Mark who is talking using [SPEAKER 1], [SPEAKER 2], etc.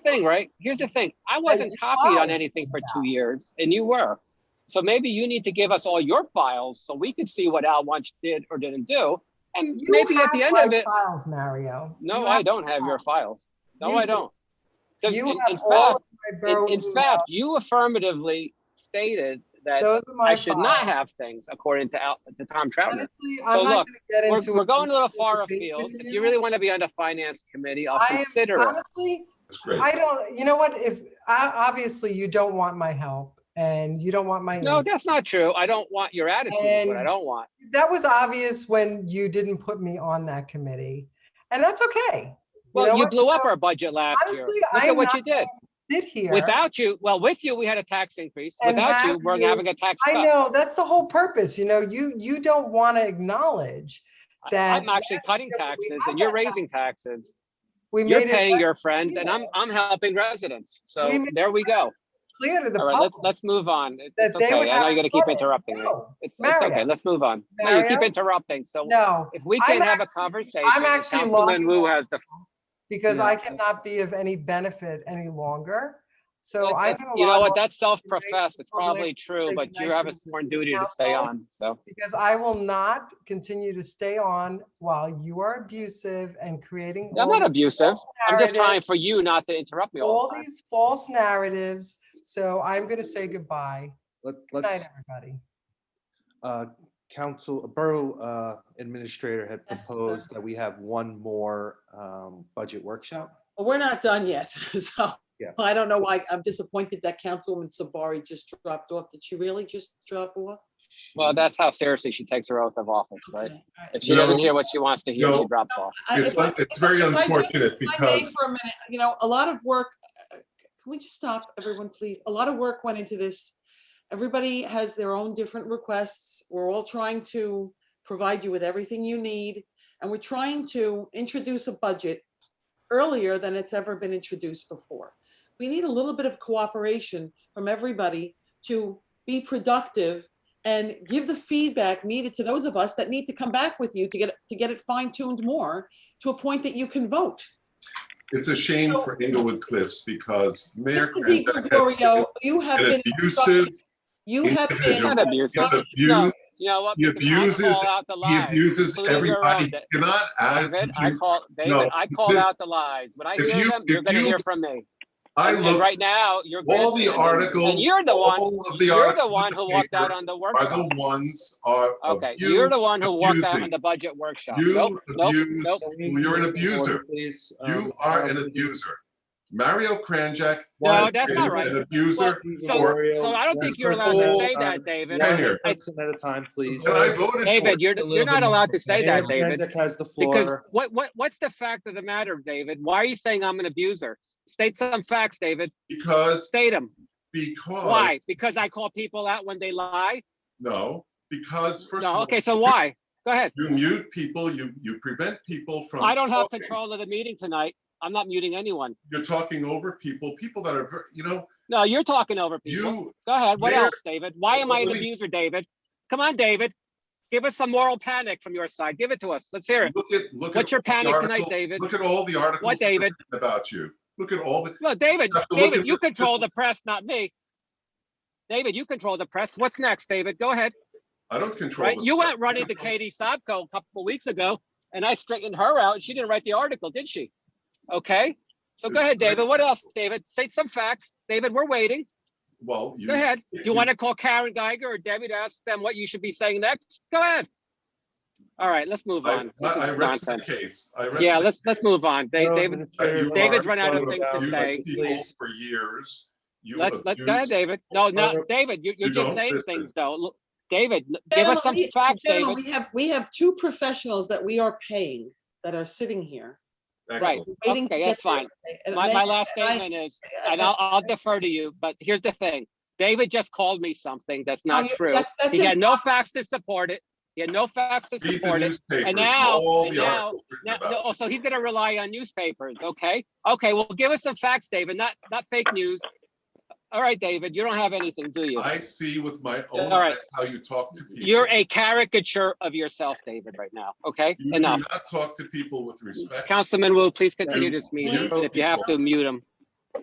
[SPEAKER 1] thing, right? Here's the thing. I wasn't copied on
[SPEAKER 2] fine.
[SPEAKER 1] anything for two years and you were. So maybe you need to give us all your files so we could see what Al Wunsch did or didn't do. And
[SPEAKER 2] You
[SPEAKER 1] maybe at
[SPEAKER 2] have
[SPEAKER 1] the end
[SPEAKER 2] my
[SPEAKER 1] of it,
[SPEAKER 2] Files, Mario.
[SPEAKER 1] no,
[SPEAKER 2] You
[SPEAKER 1] I
[SPEAKER 2] have-
[SPEAKER 1] don't have your files. No,
[SPEAKER 2] You
[SPEAKER 1] I
[SPEAKER 2] do.
[SPEAKER 1] don't. Because in
[SPEAKER 2] You
[SPEAKER 1] in
[SPEAKER 2] have all
[SPEAKER 1] fact,
[SPEAKER 2] of my
[SPEAKER 1] in,
[SPEAKER 2] Borough
[SPEAKER 1] in
[SPEAKER 2] Rule
[SPEAKER 1] fact, you affirmatively stated that
[SPEAKER 2] Those are my
[SPEAKER 1] I should not
[SPEAKER 2] files.
[SPEAKER 1] have things according to Al, to Tom Troutner.
[SPEAKER 2] Honestly,
[SPEAKER 1] So
[SPEAKER 2] I'm not
[SPEAKER 1] look,
[SPEAKER 2] gonna get
[SPEAKER 1] We're,
[SPEAKER 2] into.
[SPEAKER 1] we're
[SPEAKER 2] a
[SPEAKER 1] going a little
[SPEAKER 2] big
[SPEAKER 1] far
[SPEAKER 2] debate
[SPEAKER 1] afield.
[SPEAKER 2] with
[SPEAKER 1] If you really want to be on the finance committee, I'll
[SPEAKER 2] I am-
[SPEAKER 1] consider it.
[SPEAKER 2] Honestly,
[SPEAKER 3] That's great.
[SPEAKER 2] I don't, you know what, if, I, obviously you don't want my help and you don't want my.
[SPEAKER 1] No,
[SPEAKER 2] input.
[SPEAKER 1] that's not true. I don't want your attitude, is what I
[SPEAKER 2] And-
[SPEAKER 1] don't want.
[SPEAKER 2] That was obvious when you didn't put me on that committee and that's okay. know
[SPEAKER 1] Well, you
[SPEAKER 2] what?
[SPEAKER 1] blew up
[SPEAKER 2] So,
[SPEAKER 1] our budget last year.
[SPEAKER 2] Honestly,
[SPEAKER 1] Look
[SPEAKER 2] I'm
[SPEAKER 1] at what
[SPEAKER 2] not
[SPEAKER 1] you did.
[SPEAKER 2] sit here.
[SPEAKER 1] Without you, well, with you, we had a tax increase.
[SPEAKER 2] And
[SPEAKER 1] Without you,
[SPEAKER 2] have
[SPEAKER 1] we're
[SPEAKER 2] you-
[SPEAKER 1] having a tax
[SPEAKER 2] I
[SPEAKER 1] cut.
[SPEAKER 2] know, that's the whole purpose, you know, you, you don't want to acknowledge
[SPEAKER 1] I-
[SPEAKER 2] that-
[SPEAKER 1] I'm actually cutting
[SPEAKER 2] we
[SPEAKER 1] taxes
[SPEAKER 2] have
[SPEAKER 1] and you're
[SPEAKER 2] that tax.
[SPEAKER 1] raising taxes.
[SPEAKER 2] we
[SPEAKER 1] You're
[SPEAKER 2] made
[SPEAKER 1] paying
[SPEAKER 2] it
[SPEAKER 1] your friends and I'm, I'm helping residents. So
[SPEAKER 2] We made
[SPEAKER 1] there we go.
[SPEAKER 2] clear to the
[SPEAKER 1] All right, let's,
[SPEAKER 2] public
[SPEAKER 1] let's move on. It- It's
[SPEAKER 2] that they would
[SPEAKER 1] okay. I know
[SPEAKER 2] have.
[SPEAKER 1] you're gonna keep
[SPEAKER 2] credit.
[SPEAKER 1] interrupting me.
[SPEAKER 2] No,
[SPEAKER 1] It's, it's okay.
[SPEAKER 2] Mario.
[SPEAKER 1] Let's move on. No, you keep
[SPEAKER 2] Mario?
[SPEAKER 1] interrupting. So
[SPEAKER 2] No,
[SPEAKER 1] if we
[SPEAKER 2] I'm
[SPEAKER 1] can have a
[SPEAKER 2] actually-
[SPEAKER 1] conversation,
[SPEAKER 2] I'm actually
[SPEAKER 1] Councilman
[SPEAKER 2] logging
[SPEAKER 1] Wu
[SPEAKER 2] off.
[SPEAKER 1] has the
[SPEAKER 2] because
[SPEAKER 1] Yeah.
[SPEAKER 2] I cannot be of any benefit any longer. So
[SPEAKER 1] That-
[SPEAKER 2] I
[SPEAKER 1] that's-
[SPEAKER 2] have a
[SPEAKER 1] You know
[SPEAKER 2] lot
[SPEAKER 1] what,
[SPEAKER 2] of-
[SPEAKER 1] that's self-professed, it's
[SPEAKER 2] public
[SPEAKER 1] probably true, but you have a
[SPEAKER 2] recognition of the
[SPEAKER 1] sworn
[SPEAKER 2] city
[SPEAKER 1] duty to stay
[SPEAKER 2] council.
[SPEAKER 1] on, so.
[SPEAKER 2] because I will not continue to stay on while you are abusive and creating
[SPEAKER 1] I'm
[SPEAKER 2] all
[SPEAKER 1] not abusive,
[SPEAKER 2] false
[SPEAKER 1] I'm just
[SPEAKER 2] narratives-
[SPEAKER 1] trying for you not to interrupt me all
[SPEAKER 2] All
[SPEAKER 1] the time.
[SPEAKER 2] these false narratives. So I'm going to say goodbye.
[SPEAKER 4] Let,
[SPEAKER 2] Good night,
[SPEAKER 4] let's,
[SPEAKER 2] everybody.
[SPEAKER 4] uh, council, Borough uh, Administrator had
[SPEAKER 5] Yes, sir.
[SPEAKER 4] proposed that we have one more um, budget workshop.
[SPEAKER 5] But We're not done yet, so
[SPEAKER 4] Yeah.
[SPEAKER 5] I don't know why. I'm disappointed that Councilwoman Sabari just dropped off. Did she really just drop off?
[SPEAKER 1] Well, that's how seriously she takes her oath of office, right?
[SPEAKER 5] Okay, all right.
[SPEAKER 1] If she doesn't
[SPEAKER 3] No.
[SPEAKER 1] hear what she wants to hear, she
[SPEAKER 3] No.
[SPEAKER 1] drops off.
[SPEAKER 5] I-
[SPEAKER 3] It's
[SPEAKER 5] if I-
[SPEAKER 3] un- it's very
[SPEAKER 5] if I may-
[SPEAKER 3] unfortunate
[SPEAKER 5] if I may
[SPEAKER 3] because
[SPEAKER 5] For a minute, you know, a lot of work, uh, can we just stop, everyone, please? A lot of work went into this. Everybody has their own different requests. We're all trying to provide you with everything you need. And we're trying to introduce a budget earlier than it's ever been introduced before. We need a little bit of cooperation from everybody to be productive and give the feedback needed to those of us that need to come back with you to get, to get it fine tuned more to a point that you can vote.
[SPEAKER 3] it's a shame
[SPEAKER 5] So-
[SPEAKER 3] for Inglewood Cliffs because Mayor
[SPEAKER 5] Mr. Di
[SPEAKER 3] Krantz has
[SPEAKER 5] Gregorio, you have
[SPEAKER 3] been an
[SPEAKER 5] been,
[SPEAKER 3] abusive,
[SPEAKER 5] you have
[SPEAKER 1] It's
[SPEAKER 3] individual.
[SPEAKER 5] been,
[SPEAKER 1] Not abusive,
[SPEAKER 3] he
[SPEAKER 1] no,
[SPEAKER 3] abused,
[SPEAKER 1] you know what?
[SPEAKER 3] he
[SPEAKER 1] because I call
[SPEAKER 3] abuses-
[SPEAKER 1] out the
[SPEAKER 3] he
[SPEAKER 1] lies,
[SPEAKER 3] abuses
[SPEAKER 1] including your own,
[SPEAKER 3] everybody.
[SPEAKER 1] Da-
[SPEAKER 3] Cannot ask,
[SPEAKER 1] David, I
[SPEAKER 3] you-
[SPEAKER 1] call, David, I call
[SPEAKER 3] David,
[SPEAKER 1] out the lies, when I
[SPEAKER 3] if
[SPEAKER 1] hear
[SPEAKER 3] you-
[SPEAKER 1] them, you're
[SPEAKER 3] if
[SPEAKER 1] gonna
[SPEAKER 3] you-
[SPEAKER 1] hear from me.
[SPEAKER 3] I
[SPEAKER 1] And
[SPEAKER 3] look,
[SPEAKER 1] right now, you're.
[SPEAKER 3] all the
[SPEAKER 1] grandstanding,
[SPEAKER 3] articles,
[SPEAKER 1] And you're the one,
[SPEAKER 3] all of the
[SPEAKER 1] you're the
[SPEAKER 3] articles
[SPEAKER 1] one
[SPEAKER 3] in
[SPEAKER 1] who
[SPEAKER 3] the
[SPEAKER 1] walked out
[SPEAKER 3] paper
[SPEAKER 1] on the
[SPEAKER 3] are
[SPEAKER 1] workshop.
[SPEAKER 3] the ones are of
[SPEAKER 1] Okay,
[SPEAKER 3] you.
[SPEAKER 1] you're the one who walked out on
[SPEAKER 3] abusing.
[SPEAKER 1] the budget workshop. Nope,
[SPEAKER 3] You
[SPEAKER 1] nope,
[SPEAKER 3] abuse,
[SPEAKER 1] nope.
[SPEAKER 3] well, you're an abuser.
[SPEAKER 4] uh,
[SPEAKER 3] You are an abuser. Mario Kranjak.
[SPEAKER 1] Um, No,
[SPEAKER 3] has
[SPEAKER 1] that's
[SPEAKER 3] been
[SPEAKER 1] not right.
[SPEAKER 3] An abuser.
[SPEAKER 1] So, so I don't think you're allowed to say that, David.
[SPEAKER 3] Yeah. Mayor.
[SPEAKER 4] uh, Person at a time, please.
[SPEAKER 3] And I voted for
[SPEAKER 1] David,
[SPEAKER 3] it.
[SPEAKER 1] you're, you're not allowed to say
[SPEAKER 4] Mayor
[SPEAKER 1] that, David.
[SPEAKER 4] Krajicek has the
[SPEAKER 1] Because
[SPEAKER 4] floor.
[SPEAKER 1] what, what, what's the fact of the matter, David? Why are you saying I'm an abuser? State some facts, David.
[SPEAKER 3] Because,
[SPEAKER 1] State them.
[SPEAKER 3] because.
[SPEAKER 1] Why? Because I call people out when they lie?
[SPEAKER 3] No, because first of
[SPEAKER 1] No,
[SPEAKER 3] all,
[SPEAKER 1] okay, so why? Go ahead.
[SPEAKER 3] you mute people, you, you prevent people from.
[SPEAKER 1] I don't have
[SPEAKER 3] talking.
[SPEAKER 1] control of the meeting tonight. I'm not muting anyone.
[SPEAKER 3] You're talking over people, people that are, ver- you know,
[SPEAKER 1] No, you're talking over people.
[SPEAKER 3] you,
[SPEAKER 1] Go ahead. What
[SPEAKER 3] Mayor-
[SPEAKER 1] else, David? Why am I an
[SPEAKER 3] Let me-
[SPEAKER 1] abuser, David? Come on, David. Give us some moral panic from your side. Give it to us. Let's hear it.
[SPEAKER 3] look at, look at.
[SPEAKER 1] What's your
[SPEAKER 3] all the
[SPEAKER 1] panic tonight,
[SPEAKER 3] articles-
[SPEAKER 1] David?
[SPEAKER 3] Look at all the articles.
[SPEAKER 1] What,
[SPEAKER 3] that are
[SPEAKER 1] David?
[SPEAKER 3] written About you. Look at all the,
[SPEAKER 1] No, David,
[SPEAKER 3] have to look
[SPEAKER 1] David,
[SPEAKER 3] at
[SPEAKER 1] you
[SPEAKER 3] the-
[SPEAKER 1] control the press, not me. David, you control the press. What's next, David? Go ahead,
[SPEAKER 3] I don't control.
[SPEAKER 1] right?
[SPEAKER 3] them.
[SPEAKER 1] You went running to Katie Sobko a couple of weeks ago and I straightened her out and she didn't write the article, did she? Okay, so go
[SPEAKER 3] It's-
[SPEAKER 1] ahead, David. What else, David? State some facts. David, we're waiting.
[SPEAKER 3] Well, you.
[SPEAKER 1] Go ahead.
[SPEAKER 3] you-
[SPEAKER 1] You want to call Karen Geiger or Debbie to ask them what you should be saying next? Go ahead. All right, let's move
[SPEAKER 3] I,
[SPEAKER 1] on.
[SPEAKER 3] I
[SPEAKER 1] This
[SPEAKER 3] I
[SPEAKER 1] is
[SPEAKER 3] rest the
[SPEAKER 1] nonsense.
[SPEAKER 3] case. I rest
[SPEAKER 1] Yeah,
[SPEAKER 3] the
[SPEAKER 1] let's, let's
[SPEAKER 3] case.
[SPEAKER 1] move on. Da-
[SPEAKER 4] Borough
[SPEAKER 1] David,
[SPEAKER 4] Administrator,
[SPEAKER 3] You
[SPEAKER 1] David's run
[SPEAKER 4] Mark,
[SPEAKER 1] out of
[SPEAKER 4] Borough
[SPEAKER 1] things to
[SPEAKER 4] Council,
[SPEAKER 3] abused
[SPEAKER 1] say.
[SPEAKER 3] People
[SPEAKER 4] please.
[SPEAKER 3] for years. You
[SPEAKER 1] Let's, let's, go ahead,
[SPEAKER 3] abused-
[SPEAKER 1] David. No, no,
[SPEAKER 4] Barbara-
[SPEAKER 1] David, you, you're
[SPEAKER 3] You
[SPEAKER 1] just
[SPEAKER 3] don't
[SPEAKER 1] saying
[SPEAKER 3] listen.
[SPEAKER 1] things though. Look, David, l- give us some
[SPEAKER 5] Gentlemen, we-
[SPEAKER 1] facts,
[SPEAKER 5] gentlemen,
[SPEAKER 1] David.
[SPEAKER 5] We have, we have two professionals that we are paying that are sitting here.
[SPEAKER 3] Excellent.
[SPEAKER 5] waiting to
[SPEAKER 1] Okay,
[SPEAKER 5] get
[SPEAKER 1] that's
[SPEAKER 5] their-
[SPEAKER 1] fine.
[SPEAKER 5] and
[SPEAKER 1] My,
[SPEAKER 5] they- uh,
[SPEAKER 1] my last
[SPEAKER 5] and I-
[SPEAKER 1] statement is,
[SPEAKER 5] I-
[SPEAKER 1] and I'll, I'll defer to you, but here's the thing. David just called me something that's not
[SPEAKER 5] you-
[SPEAKER 1] true.
[SPEAKER 5] Oh, that's- that's
[SPEAKER 1] He had
[SPEAKER 5] improper.
[SPEAKER 1] no facts to support it. He had no facts to
[SPEAKER 3] Read
[SPEAKER 1] support it.
[SPEAKER 3] the newspapers,
[SPEAKER 1] now-
[SPEAKER 3] all
[SPEAKER 1] and
[SPEAKER 3] the
[SPEAKER 1] now-
[SPEAKER 3] articles
[SPEAKER 1] No,
[SPEAKER 3] written
[SPEAKER 1] no,
[SPEAKER 3] about
[SPEAKER 1] oh,
[SPEAKER 3] you.
[SPEAKER 1] so he's gonna rely on newspapers, okay? Okay, well, give us some facts, David, not, not fake news. All right, David, you don't have anything, do you?
[SPEAKER 3] I see with my own
[SPEAKER 1] All right.
[SPEAKER 3] eyes how you talk to people.
[SPEAKER 1] You're a caricature of yourself, David, right now, okay?
[SPEAKER 3] You do
[SPEAKER 1] Enough.
[SPEAKER 3] not talk to people with respect.
[SPEAKER 1] Councilman Wu, please continue this meeting,
[SPEAKER 3] you-
[SPEAKER 1] and if you have to, mute him.